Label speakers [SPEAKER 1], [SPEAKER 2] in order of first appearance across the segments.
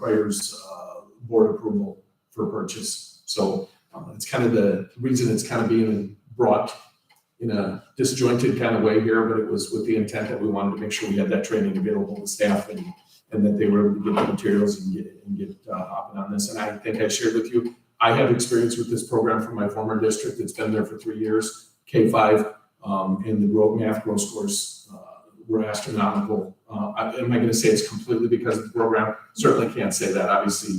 [SPEAKER 1] requires uh, board approval for purchase. So uh, it's kind of the reason it's kind of being brought in a disjointed kind of way here, but it was with the intent that we wanted to make sure we had that training available to staff and, and that they were able to get the materials and get, and get uh, hopping on this. And I think I shared with you, I have experience with this program from my former district. It's been there for three years, K five. Um, and the road math growth scores uh, were astronomical. Uh, I- am I going to say it's completely because of the program? Certainly can't say that. Obviously,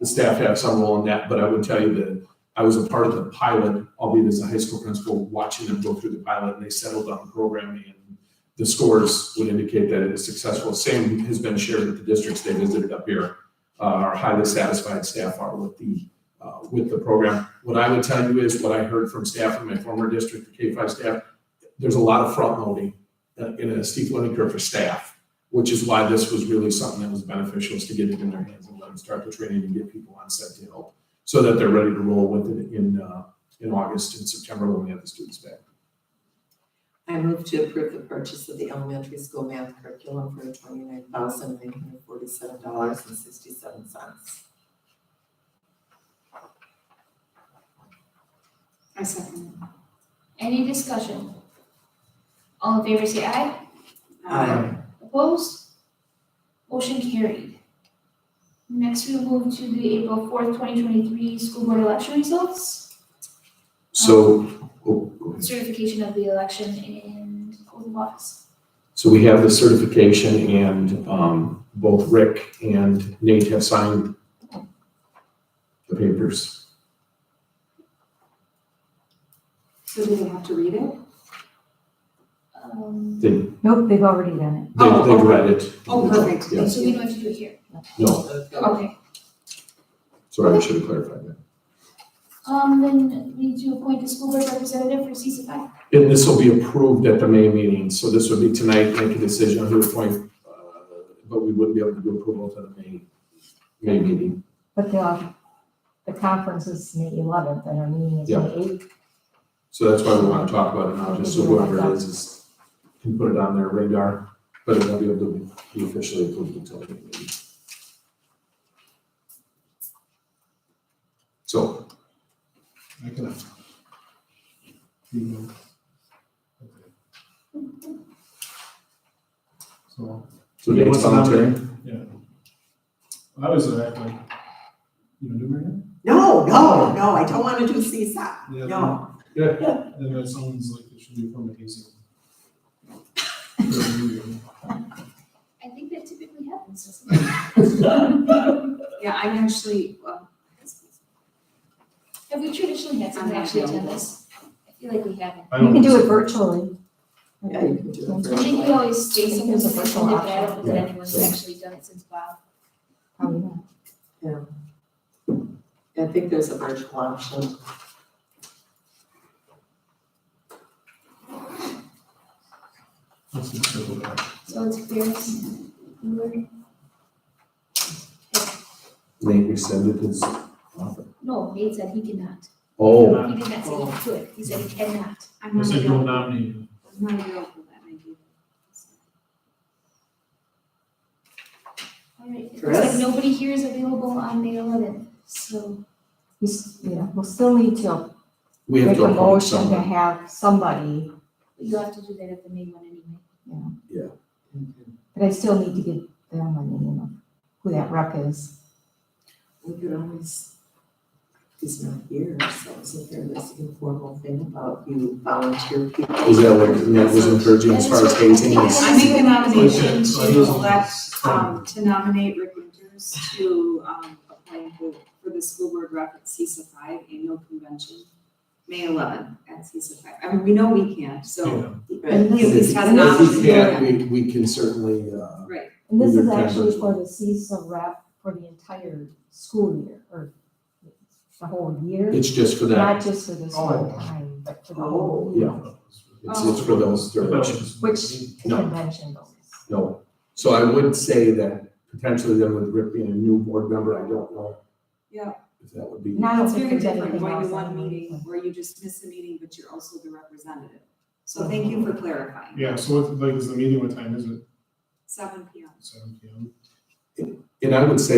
[SPEAKER 1] the staff have some role in that, but I would tell you that I was a part of the pilot, albeit as a high school principal, watching them go through the pilot and they settled on the program and the scores would indicate that it was successful. Same has been shared with the districts they visited up here. Uh, Our highly satisfied staff are with the, uh, with the program. What I would tell you is what I heard from staff in my former district, the K five staff, there's a lot of front loading uh, in a steep learning curve for staff, which is why this was really something that was beneficial is to get it in their hands and let them start the training and get people on set to help so that they're ready to roll with it in, uh, in August and September when we have the students back.
[SPEAKER 2] I move to approve the purchase of the elementary school math curriculum for twenty-nine thousand nine hundred forty-seven dollars and sixty-seven cents.
[SPEAKER 3] I second
[SPEAKER 4] Any discussion? All in favor say aye.
[SPEAKER 3] that.
[SPEAKER 4] Opposed? Motion carried. Next, we move to the April fourth, twenty twenty-three school board election results.
[SPEAKER 1] So, oh, go ahead.
[SPEAKER 4] Certification of the election and oath of office.
[SPEAKER 1] so we have the certification and, um, both Rick and Nate have signed the papers.
[SPEAKER 3] So do they have to read it?
[SPEAKER 4] Um,
[SPEAKER 1] They, they-
[SPEAKER 5] Nope, they've already done
[SPEAKER 3] Oh,
[SPEAKER 1] they've
[SPEAKER 3] okay.
[SPEAKER 1] read it.
[SPEAKER 3] Oh, perfect.
[SPEAKER 1] Yeah.
[SPEAKER 4] so we don't have to do it here.
[SPEAKER 1] No,
[SPEAKER 4] Okay.
[SPEAKER 1] sorry, I should have clarified that.
[SPEAKER 4] Um, then we need to appoint a school board representative for CCFI.
[SPEAKER 1] And this will be approved at the May meeting, so this would be tonight, make a decision on who to appoint, uh, but we wouldn't be able to do approval to the May, May meeting.
[SPEAKER 5] it, but the, um, the conference is May eleventh and our meeting is
[SPEAKER 1] Yeah.
[SPEAKER 5] May eighth.
[SPEAKER 1] So that's why we want to talk about it now, just so whoever it is, is, can put it on their radar, but it won't be able to be officially approved until the meeting. So,
[SPEAKER 6] I can. You know. Okay. So,
[SPEAKER 1] so
[SPEAKER 6] Yeah,
[SPEAKER 1] Nate's
[SPEAKER 6] what's the number?
[SPEAKER 1] voluntary,
[SPEAKER 6] yeah. I was uh, like, you know, Marion?
[SPEAKER 2] No, no, no, I don't wanna do CSAP, no.
[SPEAKER 6] And that sounds like it should be from the hazing.
[SPEAKER 4] I think that typically happens, doesn't it?
[SPEAKER 3] Yeah, I'm actually, well,
[SPEAKER 4] Have we traditionally had someone actually attend this? I feel like we haven't.
[SPEAKER 6] I
[SPEAKER 5] You
[SPEAKER 6] don't
[SPEAKER 5] can do it virtually.
[SPEAKER 2] Yeah, you can do it
[SPEAKER 4] I think we always say
[SPEAKER 5] I think
[SPEAKER 4] something
[SPEAKER 5] there's a
[SPEAKER 4] similar
[SPEAKER 5] virtual
[SPEAKER 4] to that, I don't think
[SPEAKER 1] option.
[SPEAKER 4] anyone's
[SPEAKER 1] Yeah.
[SPEAKER 4] actually done it since Bob.
[SPEAKER 5] Probably not.
[SPEAKER 2] I think there's a virtual option.
[SPEAKER 6] Let's just circle back.
[SPEAKER 4] So it's Ferris. Bueller.
[SPEAKER 1] Nate rescinded his offer.
[SPEAKER 4] No, Nate said he cannot.
[SPEAKER 1] Oh,
[SPEAKER 4] He did not say he could. He said he cannot.
[SPEAKER 3] I'm
[SPEAKER 6] I
[SPEAKER 3] not
[SPEAKER 6] said you'll
[SPEAKER 3] available,
[SPEAKER 6] nominate him.
[SPEAKER 3] I'm not available that night either.
[SPEAKER 4] All right. It's like
[SPEAKER 2] Ferris?
[SPEAKER 4] nobody here is available on May eleventh, so
[SPEAKER 5] You s- yeah, we'll still need to
[SPEAKER 1] we have
[SPEAKER 5] make
[SPEAKER 1] to
[SPEAKER 5] a
[SPEAKER 1] appoint
[SPEAKER 5] motion to
[SPEAKER 1] someone.
[SPEAKER 5] have somebody,
[SPEAKER 4] you have to do that at the May one anyway.
[SPEAKER 5] but I still need to get them on the name of who that rep is.
[SPEAKER 2] We could always, he's not here, so isn't there this informal thing about you volunteer people?
[SPEAKER 1] Is that what, Nate was encouraging as far as hazing is?
[SPEAKER 3] I make the nomination
[SPEAKER 6] So I
[SPEAKER 3] to
[SPEAKER 6] just-
[SPEAKER 3] elect,
[SPEAKER 6] uh,
[SPEAKER 3] um, to nominate Rick Winters to, um, apply for, for the school board rep at CISA five annual convention, May eleventh at CISA five. I mean, we know we can't, so
[SPEAKER 6] Yeah.
[SPEAKER 2] Right.
[SPEAKER 3] he at least has an
[SPEAKER 1] If we
[SPEAKER 3] option.
[SPEAKER 1] can't, we, we can certainly, uh,
[SPEAKER 5] And this
[SPEAKER 1] Either
[SPEAKER 5] is
[SPEAKER 1] can
[SPEAKER 5] actually
[SPEAKER 1] virtually.
[SPEAKER 5] for the CISA rep for the entire school year, or the whole year,
[SPEAKER 1] it's just for that,
[SPEAKER 5] not just for this
[SPEAKER 6] Oh.
[SPEAKER 5] whole time, but for the whole
[SPEAKER 2] Oh.
[SPEAKER 5] year.
[SPEAKER 1] it's, it's for those
[SPEAKER 6] I thought
[SPEAKER 1] directions.
[SPEAKER 6] it was-
[SPEAKER 5] Which the
[SPEAKER 1] No.
[SPEAKER 5] convention goes.
[SPEAKER 1] No. So I would say that potentially then with Rick being a new board member, I don't know.
[SPEAKER 3] Yeah.
[SPEAKER 1] If that would be.
[SPEAKER 5] And I don't
[SPEAKER 3] It's
[SPEAKER 5] think
[SPEAKER 3] very
[SPEAKER 5] there's
[SPEAKER 3] different
[SPEAKER 5] anything
[SPEAKER 3] going to
[SPEAKER 5] else
[SPEAKER 3] one
[SPEAKER 5] on there.
[SPEAKER 3] meeting where you just miss a meeting, but you're also the representative. So thank you for clarifying.
[SPEAKER 6] Yeah, so what, like, is the meeting, what time is it?
[SPEAKER 3] Seven P M.
[SPEAKER 6] Seven P M?
[SPEAKER 1] And I would say